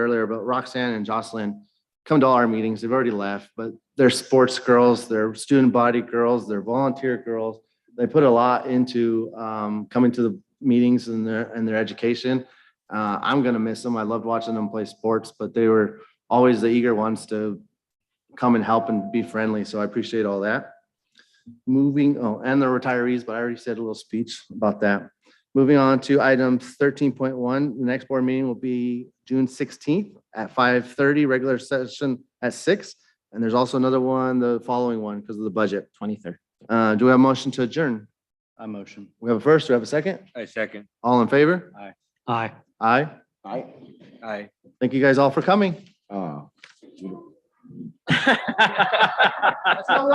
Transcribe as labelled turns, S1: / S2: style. S1: earlier, but Roxanne and Jocelyn come to all our meetings. They've already left, but they're sports girls, they're student body girls, they're volunteer girls. They put a lot into um, coming to the meetings and their, and their education. Uh, I'm gonna miss them. I loved watching them play sports, but they were always the eager ones to come and help and be friendly, so I appreciate all that. Moving, oh, and the retirees, but I already said a little speech about that. Moving on to item thirteen point one, the next board meeting will be June sixteenth at five thirty, regular session at six. And there's also another one, the following one, because of the budget.
S2: Twenty-third.
S1: Uh, do we have a motion to adjourn?
S2: I motion.
S1: We have a first, we have a second?
S2: I second.
S1: All in favor?
S2: Aye.
S1: Aye.
S3: I,
S2: Aye.
S1: Thank you guys all for coming.
S3: uh,